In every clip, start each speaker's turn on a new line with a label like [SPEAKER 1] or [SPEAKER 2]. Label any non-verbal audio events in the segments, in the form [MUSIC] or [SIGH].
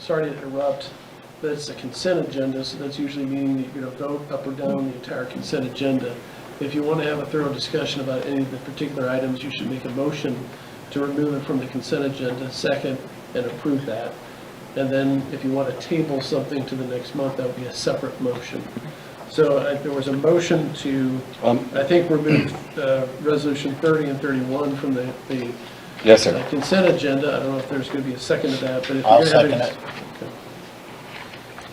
[SPEAKER 1] sorry to interrupt, but it's a consent agenda, so that's usually meaning that you're going to vote up or down the entire consent agenda. If you want to have a thorough discussion about any of the particular items, you should make a motion to remove it from the consent agenda, second, and approve that. And then if you want to table something to the next month, that would be a separate motion. So uh, there was a motion to,
[SPEAKER 2] Um,
[SPEAKER 1] I think, remove uh, Resolution 30 and 31 from the the
[SPEAKER 2] Yes,
[SPEAKER 1] uh,
[SPEAKER 2] sir.
[SPEAKER 1] consent agenda. I don't know if there's going to be a second to that, but if
[SPEAKER 3] I'll
[SPEAKER 1] you're having...
[SPEAKER 3] second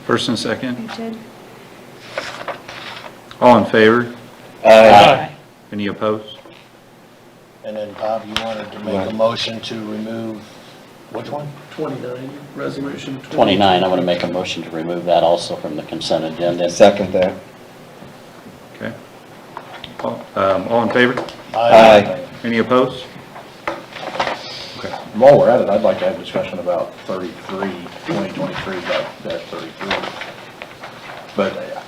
[SPEAKER 4] First and second,
[SPEAKER 5] You did?
[SPEAKER 4] all in favor?
[SPEAKER 2] Uh,
[SPEAKER 4] Any opposed?
[SPEAKER 3] And then Bob, you wanted to make a
[SPEAKER 2] Right.
[SPEAKER 3] motion to remove, which one?
[SPEAKER 1] 29, Resolution 20.
[SPEAKER 6] 29, I'm going to make a motion to remove that also from the consent agenda.
[SPEAKER 2] Second that.
[SPEAKER 4] Okay. All um, all in favor?
[SPEAKER 2] Aye.
[SPEAKER 4] Any opposed?
[SPEAKER 7] Okay. While we're at it, I'd like to have a discussion about 33, 2023, that, that 33. But uh,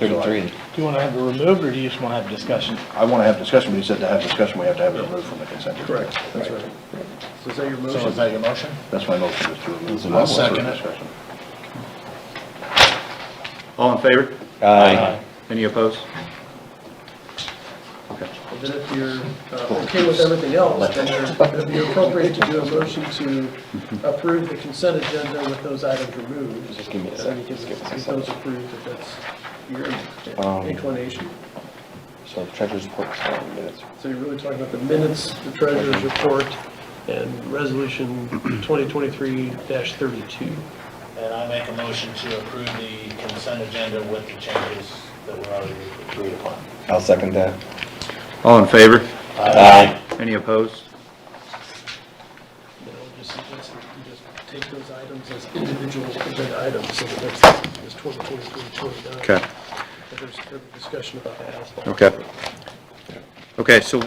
[SPEAKER 2] 33.
[SPEAKER 3] Do you want to have it removed, or do you just want to have discussion?
[SPEAKER 7] I want to have discussion, but you said to have discussion, we have to have it removed from the consent. agenda.
[SPEAKER 1] Correct, that's right. So is that your
[SPEAKER 3] So is
[SPEAKER 1] motion?
[SPEAKER 3] that your motion?
[SPEAKER 7] That's my motion, is to remove.
[SPEAKER 3] I'll second it.
[SPEAKER 7] Discussion.
[SPEAKER 4] All in favor?
[SPEAKER 2] Aye.
[SPEAKER 4] Any opposed? Okay.
[SPEAKER 1] And Then if you're uh, okay with everything else, then you're- it'd be appropriate to do a motion to approve the consent agenda with those items removed.
[SPEAKER 2] Just give me a
[SPEAKER 1] And
[SPEAKER 2] second,
[SPEAKER 1] you can
[SPEAKER 2] just give me a
[SPEAKER 1] get
[SPEAKER 2] second.
[SPEAKER 1] those approved if that's your
[SPEAKER 2] Um,
[SPEAKER 1] inclination.
[SPEAKER 2] So the treasurer's report is five minutes.
[SPEAKER 1] So you're really talking about the minutes, the treasurer's report, and Resolution 2023-32.
[SPEAKER 3] And I make a motion to approve the consent agenda with the changes that were already agreed upon.
[SPEAKER 2] I'll second that.
[SPEAKER 4] All in favor?
[SPEAKER 2] Aye.
[SPEAKER 4] Any opposed?
[SPEAKER 1] You know, just, just, just take those items as individual agenda items, so the next is 2023, 29.
[SPEAKER 4] Okay,
[SPEAKER 1] But There's further discussion about that.
[SPEAKER 4] okay. Okay, so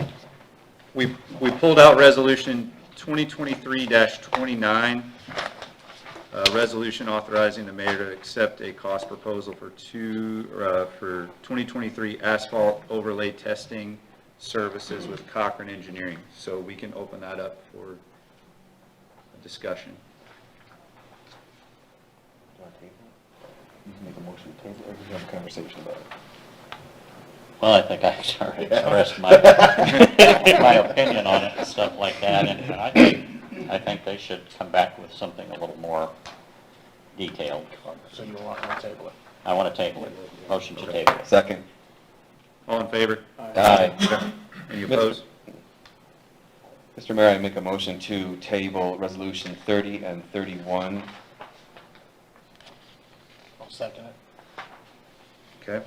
[SPEAKER 4] we, we pulled out resolution 2023-29, uh, resolution authorizing the mayor to accept a cost proposal for two, uh, for 2023 asphalt overlay testing services with Cochran Engineering. So we can open that up for discussion.
[SPEAKER 2] You can make a motion to table, or we can have a conversation about it.
[SPEAKER 6] Well, I think I [LAUGHS] already expressed my, my [LAUGHS] opinion on it and stuff like that, and I think, I think they should come back with something a little more detailed.
[SPEAKER 3] So you want to table it?
[SPEAKER 6] I want to table it, motion to table it.
[SPEAKER 2] Second.
[SPEAKER 4] All in favor?
[SPEAKER 2] Aye.
[SPEAKER 4] Any opposed?
[SPEAKER 2] Mr. Mayor, I make a motion to table Resolution 30 and 31.
[SPEAKER 3] I'll second it.
[SPEAKER 4] Okay.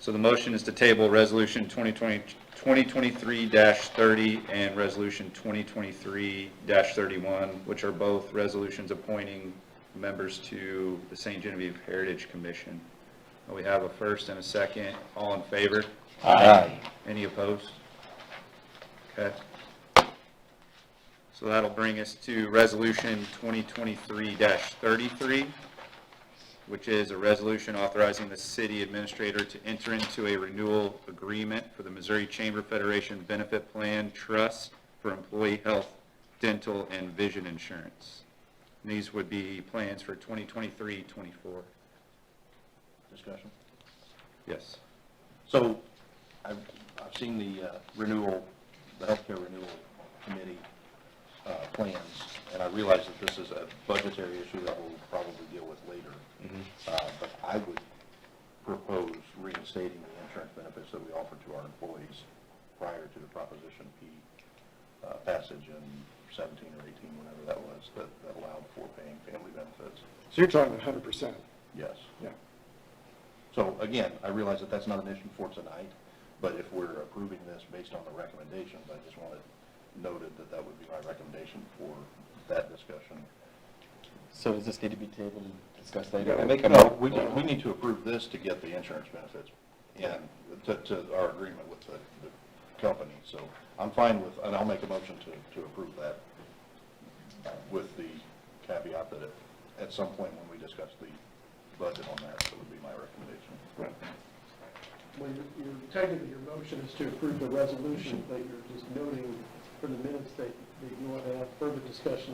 [SPEAKER 4] So the motion is to table Resolution 2020 2023-30 and Resolution 2023-31, which are both resolutions appointing members to the St. Genevieve Heritage Commission. We have a first and a second. All in favor? Any opposed? Okay. So that'll bring us to Resolution 2023-33, which is a resolution authorizing the city administrator to enter into a renewal agreement for the Missouri Chamber Federation Benefit Plan Trust for employee health, dental, and vision insurance. And These would be plans for 2023, 24.
[SPEAKER 7] Discussion.
[SPEAKER 4] Yes.
[SPEAKER 7] So I've, I've seen the uh, renewal, the healthcare renewal committee uh, plans, and I realize that this is a budgetary issue that we'll probably deal with later. Uh, But I would propose reinstating the insurance benefits that we offer to our employees prior to the Proposition P uh, passage in 17 or 18, whenever that was, that that allowed for paying family benefits.
[SPEAKER 8] So you're talking hundred percent,
[SPEAKER 7] Yes.
[SPEAKER 8] yeah.
[SPEAKER 7] So again, I realize that that's not an issue for tonight, but if we're approving this based on the recommendations, I just wanted noted that that would be my recommendation for that discussion.
[SPEAKER 2] So does this need to be tabled and discussed later? I make a
[SPEAKER 7] No, we,
[SPEAKER 2] mo-
[SPEAKER 7] we need to approve this to get the insurance benefits in, to, to our agreement with the, the company. So I'm fine with, and I'll make a motion to, to approve that with the caveat that at, at some point when we discuss the budget on that, that would be my recommendation.
[SPEAKER 1] Well, your- your- technically, your motion is to approve the resolution, but you're just noting for the minutes that that you want to have further discussion